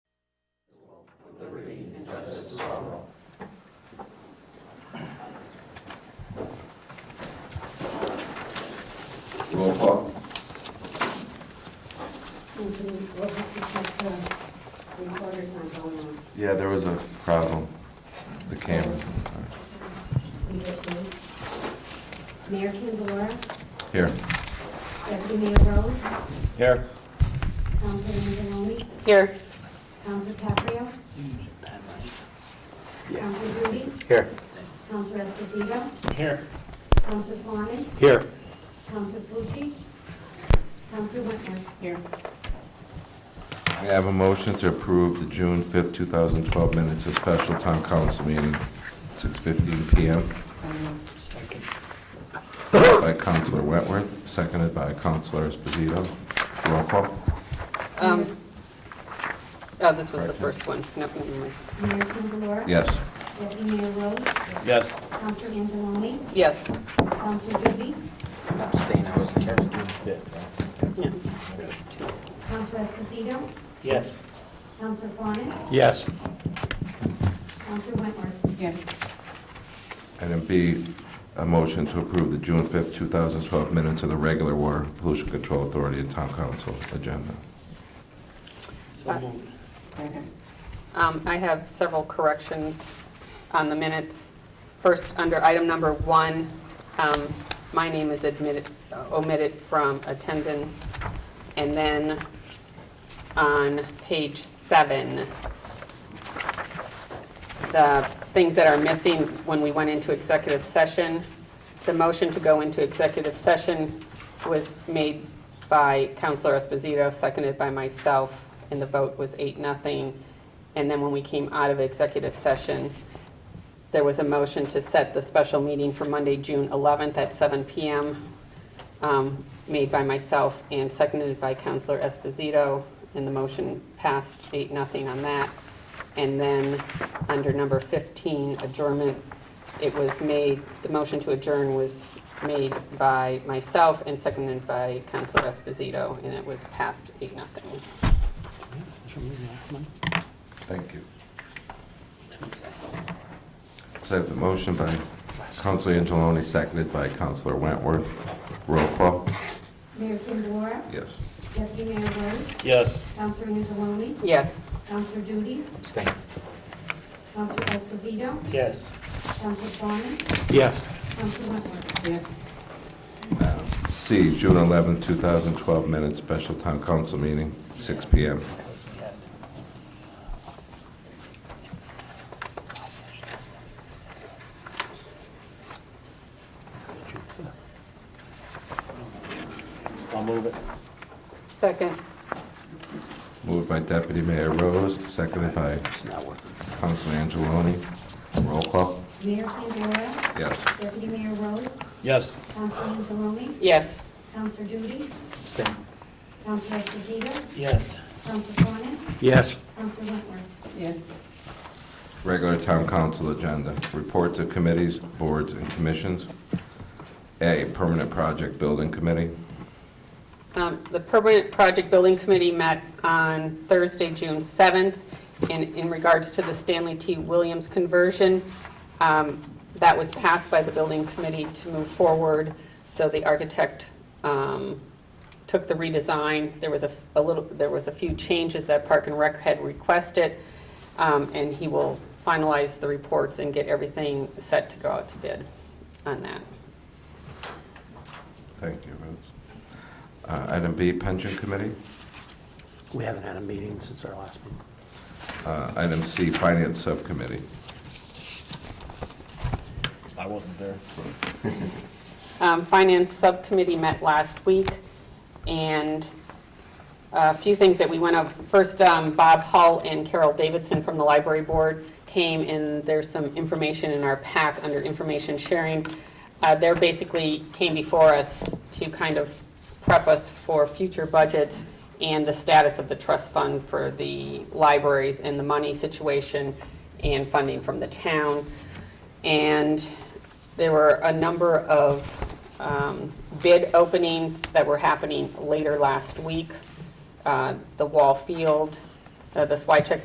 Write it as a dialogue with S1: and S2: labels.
S1: going
S2: Yeah, there was a problem. The cameras.
S1: on. We get through. Mayor Candelora,
S2: Here.
S1: Deputy Mayor Rose,
S2: Here.
S1: Councilor Angeloni,
S3: Here.
S1: Councilor Caprio, Councilor Rudy,
S2: Here.
S1: Councilor Esposito,
S4: Here.
S1: Councilor Fawnin,
S2: Here.
S1: Councilor Fucci, Councilor Whitmer.
S3: Here.
S2: I have a motion to approve the June 5th, 2012 minutes of special town council meeting, 6:15 PM
S4: Second.
S2: by Councilor Wentworth, seconded by Councilor Esposito. Roll call.
S3: Um, Oh, this was the first one. No, never mind.
S1: Mayor Candelora.
S2: Yes.
S1: Deputy Mayor Rose,
S4: Yes.
S1: Councilor Angeloni,
S3: Yes.
S1: Councilor Rudy,
S5: Abstain, I wasn't here. June fifth, huh?
S3: Yeah.
S1: Councilor Esposito,
S4: Yes.
S1: Councilor Fawnin,
S4: Yes.
S1: Councilor Whitmer.
S3: Yes.
S2: Item B, a motion to approve the June 5th, 2012 minutes of the regular Water Pollution Control Authority and Town Council agenda.
S4: So moved.
S3: Um, I have several corrections on the minutes. First, under item number one, um, my name is admitted, omitted from attendance. And then on page seven, the things that are missing when we went into executive session. The motion to go into executive session was made by Counselor Esposito, seconded by myself, and the vote was eight, nothing. And then when we came out of executive session, there was a motion to set the special meeting for Monday, June 11th at 7 PM, um, made by myself and seconded by Counselor Esposito, and the motion passed eight, nothing on that. And then, under number 15, adjournment, it was made, the motion to adjourn was made by myself and seconded by Counselor Esposito, and it was passed eight, nothing.
S2: Thank you. So I have the motion by Councilor Angeloni, seconded by Councilor Wentworth. Roll call.
S1: Mayor Candelora,
S2: Yes.
S1: Deputy Mayor Rose,
S4: Yes.
S1: Councilor Angeloni,
S3: Yes.
S1: Councilor Duty,
S5: Abstain.
S1: Councilor Esposito,
S4: Yes.
S1: Councilor Fawnin,
S4: Yes.
S1: Councilor Wentworth.
S2: C, June 11, 2012 minutes, special town council meeting, 6 PM.
S5: I'll move it.
S3: Second.
S2: Moved by Deputy Mayor Rose, seconded by
S5: It's not working.
S2: Councilor Angeloni. Roll call.
S1: Mayor Candelora,
S2: Yes.
S1: Deputy Mayor Rose,
S4: Yes.
S1: Councilor Angeloni,
S3: Yes.
S1: Councilor Duty,
S5: Abstain.
S1: Councilor Esposito,
S4: Yes.
S1: Councilor Fawnin,
S4: Yes.
S1: Councilor Wentworth.
S3: Yes.
S2: Regular town council agenda, reports of committees, boards, and commissions. A, Permanent Project Building Committee.
S3: Um, The Permanent Project Building Committee met on Thursday, June 7th, in in regards to the Stanley T. Williams conversion. um, That was passed by the building committee to move forward, so the architect um, took the redesign. There was a f- a little, there was a few changes that Park and Rec had requested, um, and he will finalize the reports and get everything set to go out to bid on that.
S2: Thank you, Rose. Uh, Item B, Pension Committee.
S4: We haven't had a meeting since our last meeting.
S2: Uh, Item C, Finance Subcommittee.
S5: I wasn't there.
S3: Um, Finance Subcommittee met last week, and a few things that we went over. First, um, Bob Hull and Carol Davidson from the Library Board came, and there's some information in our pack under information sharing. Uh, They're basically came before us to kind of prep us for future budgets and the status of the trust fund for the libraries and the money situation and funding from the town. And there were a number of um, bid openings that were happening later last week. Uh, The Wall Field, uh, the Swycheck